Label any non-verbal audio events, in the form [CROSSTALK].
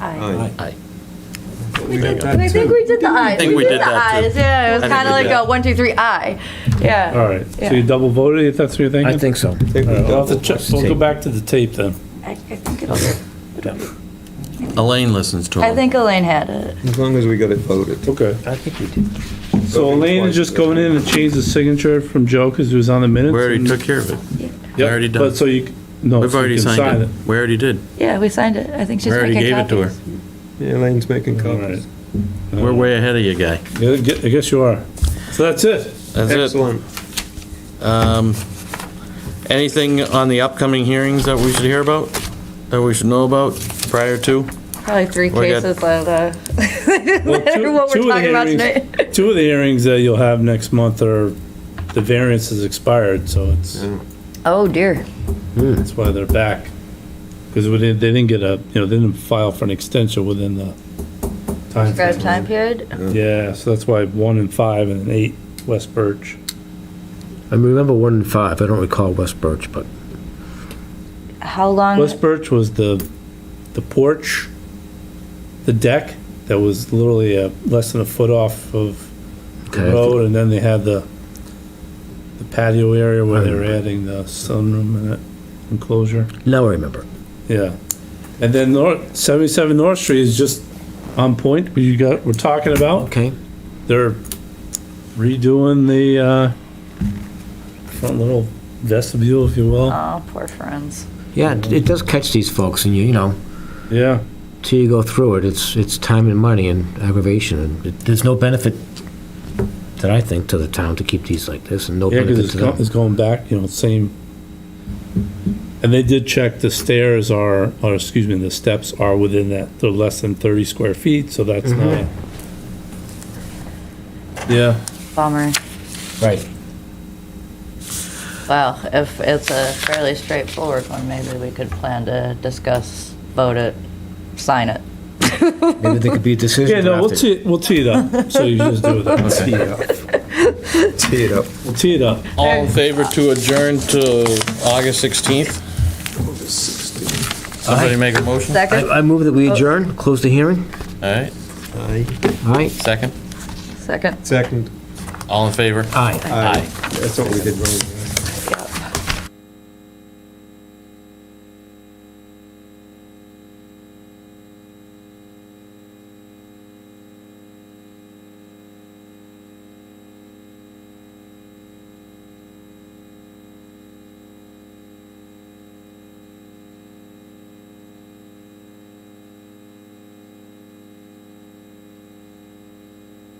Aye. Aye. Oh, We got And I that think too. we did the eyes. I think we did that, too. the eyes. Yeah, it was I think kind of we like did a that. one, two, three, I. Yeah. All right, so you Yeah. double voted, if that's what you're thinking? I think so. I think All we right, We'll have to doubled. check, we'll go back to the tape then. I I think it- Elaine listens to I him. think Elaine had it. As long as we got it voted. Okay. I think you did. So Elaine is just going in and changed the signature from Joe because it was on the minutes. We already and- took care of it. Yep, already done. But so you, c- no, We've Oh, so you already can sign signed it. it. We already did. Yeah, we signed it. I think she's We already making gave it to her. copies. Yeah, Elaine's making All copies. right. Uh, We're way ahead of you, guy. Yeah, I gue- I guess you are. So that's it. That's it. Excellent. Um, Anything on the upcoming hearings that we should hear about? That we should know about prior to? Probably three We're good. cases of uh, [LAUGHS] Well, two- what two we're of the talking about hearings- tonight. Two of the hearings that you'll have next month are, the variance has expired, so it's, Oh, dear. that's why they're back. Because they didn't get a, you know, they didn't file for an extension within the time. Grab time period. Yeah, so that's why one and five and eight, West Birch. I remember one and five. I don't recall West Birch, but How long? West Birch was the, the porch, the deck that was literally uh less than a foot off of the Okay. road, and then they had the, the patio area where they were adding the sunroom and that enclosure. now I remember. Yeah. And then North, seventy-seven North Street is just on point, what you got, we're talking about. Okay. They're redoing the, uh, front little vestibule, if you will. Oh, poor friends. Yeah, it, it does catch these folks, and you you know, Yeah. till you go through it, it's it's time and money and aggravation, and it, there's no benefit that I think to the town to keep these like this, and no Yeah, because benefit it's, to go- them. it's going back, you know, same. And they did check the stairs are, or excuse me, the steps are within that, they're less than thirty square feet, so that's not. Mm-hmm. Yeah, Bummer. Right. Well, if it's a fairly straightforward one, maybe we could plan to discuss, vote it, sign it. Maybe there could be a decision. [LAUGHS] yeah, no, we'll drafted. tee, we'll tee it up, so you just do [LAUGHS] that, Tee it up. Tee it up. we'll tee it up. All in favor to adjourn to August 16th? Somebody make a motion? All Second? I, I move that Uh, we adjourn, close the hearing. right, Aye. All right. second. Second. Second. All in favor? Aye. Aye. That's what we did wrong.